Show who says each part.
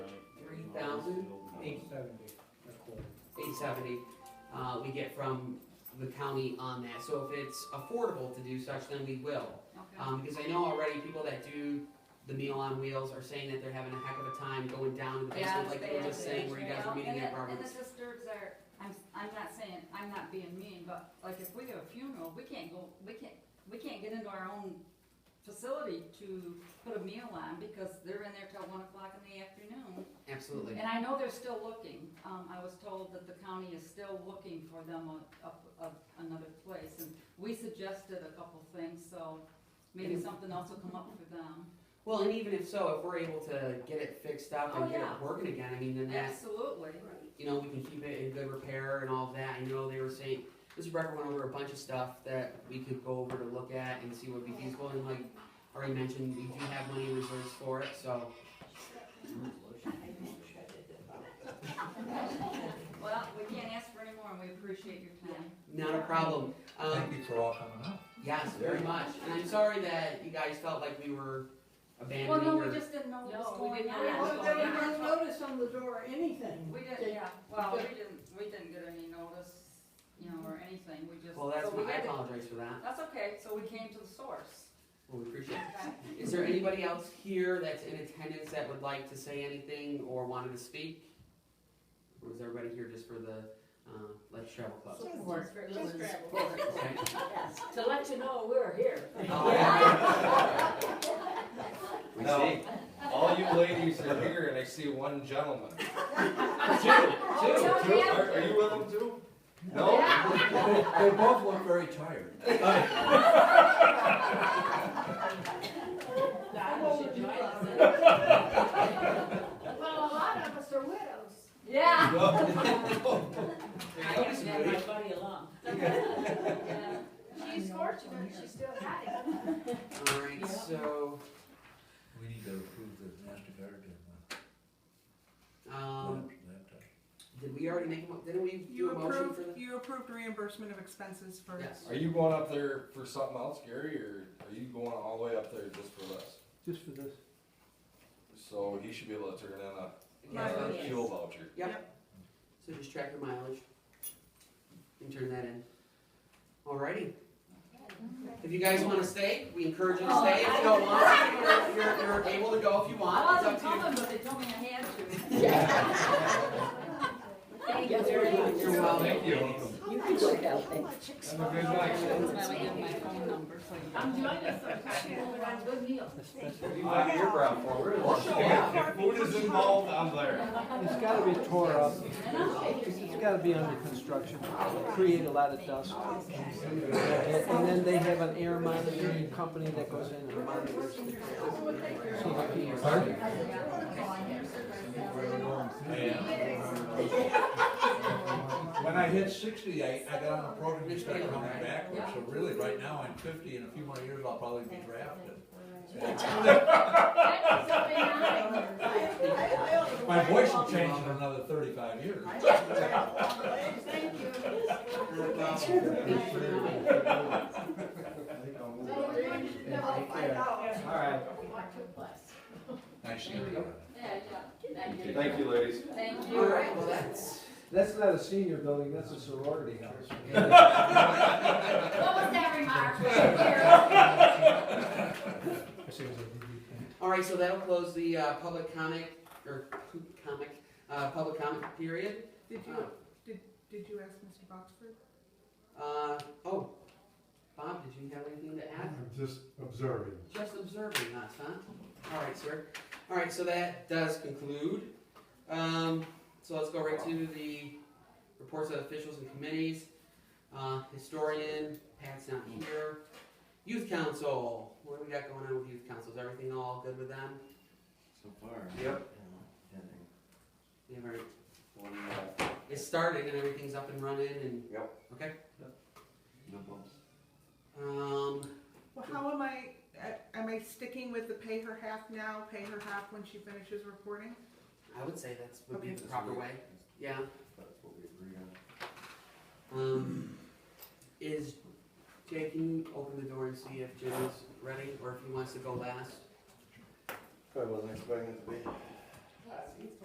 Speaker 1: thousand, eight,
Speaker 2: Seventy, a quarter.
Speaker 1: eight seventy, uh, we get from the county on that, so if it's affordable to do such, then we will.
Speaker 3: Okay.
Speaker 1: Um, because I know already people that do the Meal on Wheels are saying that they're having a heck of a time going down to the basement,
Speaker 3: Yes,
Speaker 1: like
Speaker 3: they
Speaker 1: you were just
Speaker 3: are.
Speaker 1: saying, where you guys were meeting
Speaker 3: And
Speaker 1: at
Speaker 3: the- And the
Speaker 1: Roberts.
Speaker 3: sisters are, I'm, I'm not saying, I'm not being mean, but like if we have a funeral, we can't go, we can't, we can't get into our own facility to put a meal on because they're in there till one o'clock in the afternoon.
Speaker 1: Mm-hmm. Absolutely.
Speaker 3: And I know they're still looking, um, I was told that the county is still looking for them a, a, a- another place, and we suggested a couple things, so maybe
Speaker 1: And-
Speaker 3: something else will come up for them.
Speaker 1: Well, and even if so, if we're able to get it fixed up
Speaker 3: Oh,
Speaker 1: and get
Speaker 3: yeah.
Speaker 1: it working again, I mean, then that's,
Speaker 3: Absolutely,
Speaker 1: you know, we can keep it in good repair and all of that. I know they were saying, Mr. Brecker went over a bunch of stuff that we could go over to look at and see what would be feasible, and like already mentioned, we do have money in reserves for it, so.
Speaker 3: well, we can't ask for any more, and we appreciate your time.
Speaker 1: Not a problem. Um,
Speaker 4: Thank you for all coming out.
Speaker 1: Yes, very much. And I'm sorry that you guys felt like we were abandoning
Speaker 3: Well, no, we
Speaker 1: your-
Speaker 3: just didn't know what was
Speaker 5: No, we
Speaker 3: going
Speaker 5: didn't
Speaker 3: on.
Speaker 5: know what was
Speaker 3: We
Speaker 5: Well,
Speaker 6: There
Speaker 5: going
Speaker 6: was
Speaker 3: didn't-
Speaker 6: no notice on the door, or anything.
Speaker 3: We didn't, yeah, well, we didn't, we didn't get any notice, you know, or anything, we just.
Speaker 1: Well, that's,
Speaker 3: so we
Speaker 1: my- I
Speaker 3: had to-
Speaker 1: apologize for that.
Speaker 3: That's okay, so we came to the source.
Speaker 1: Well, we appreciate it.
Speaker 3: Okay.
Speaker 1: Is there anybody else here that's in attendance that would like to say anything or wanted to speak? Or was everybody here just for the, uh, Let's Travel Club? Okay.
Speaker 5: To let you know we're here.
Speaker 1: All right. We
Speaker 7: No.
Speaker 1: see.
Speaker 7: All you ladies are here, and I see one gentleman. Two, two,
Speaker 5: yeah,
Speaker 7: two.
Speaker 5: yeah.
Speaker 7: Are, are you with him too? No?
Speaker 4: They both look very tired.
Speaker 6: Well, a lot of us are widows.
Speaker 3: Yeah.
Speaker 5: I have to have my buddy along.
Speaker 3: Yeah.
Speaker 6: She's fortunate, she still got it.
Speaker 1: All right, so,
Speaker 4: We need to approve the MasterCard and uh,
Speaker 1: um,
Speaker 4: laptop.
Speaker 1: did we already make, a mo- didn't we
Speaker 8: You
Speaker 1: do a motion
Speaker 8: approved,
Speaker 1: for the?
Speaker 8: you approved reimbursement of expenses for.
Speaker 1: Yes.
Speaker 7: Are you going up there for something else, Gary, or are you going all the way up there just for this?
Speaker 2: Just for this.
Speaker 7: So he should be able to turn in
Speaker 1: Yeah,
Speaker 8: Mileage.
Speaker 7: a fuel voucher.
Speaker 1: Yep. So just track your mileage and turn that in. Alrighty. If you guys wanna stay, we encourage you to
Speaker 3: Oh,
Speaker 1: stay. If you don't want to, you're, you're- you're able to go if you
Speaker 3: I
Speaker 1: want. It's up to
Speaker 3: wasn't
Speaker 1: you.
Speaker 3: coming, but they told me I had to.
Speaker 5: Thank you very much.
Speaker 1: Oh, You're welcome.
Speaker 7: Thank you.
Speaker 5: You can go down there.
Speaker 7: Have a good night.
Speaker 3: That's why we have my phone number, so you.
Speaker 5: I'm joining us sometime, we're on good meals.
Speaker 7: You like your brown forward. If food is involved, I'm there.
Speaker 2: It's gotta be tore up, it's gotta be under construction, create a lot of dust. And and then they have an air monitoring company that goes in and monitors. it. So that people-
Speaker 4: When I hit sixty, I, I got on a program and started coming backwards, so really, right now, I'm fifty, in a few more years, I'll probably be drafted. My voice will change in another thirty-five years.
Speaker 6: Thank you.
Speaker 7: All right.
Speaker 4: Nice to meet you.
Speaker 3: Yeah, yeah.
Speaker 7: Thank you, ladies.
Speaker 3: Thank you.
Speaker 1: Alright, well, that's.
Speaker 2: That's not a senior building, that's a sorority house.
Speaker 3: What was that remark? Thank you.
Speaker 1: Alright, so that'll close the, uh, public comic, or comic, uh, public comment period.
Speaker 8: Did you, did, did you ask Mr. Boxford?
Speaker 1: Uh, oh, Bob, did you have anything to add?
Speaker 9: I'm just observing.
Speaker 1: Just observing us, huh? All right, sir. All right, so that does conclude. Um, so let's go right to the reports of officials and committees. Uh, historian, Pat's not here. Youth council, what do we got going on with youth council? Is everything all good with them?
Speaker 10: So far.
Speaker 7: Yep.
Speaker 10: Yeah, yeah,
Speaker 1: They have already-
Speaker 10: One, uh,
Speaker 1: It started and everything's up and running and.
Speaker 10: Yep.
Speaker 1: Okay.
Speaker 10: no bumps.
Speaker 1: Um,
Speaker 8: Well, how am I, uh, am I sticking with the pay her half now, pay her half when she finishes reporting?
Speaker 1: I would say that's would be
Speaker 8: Okay.
Speaker 1: the proper way. Yeah.
Speaker 10: That's what we agreed on.
Speaker 1: Um, is, Jay, can you open the door and see if Jim is ready, or if he wants to go last?
Speaker 10: Probably wasn't expecting it to be.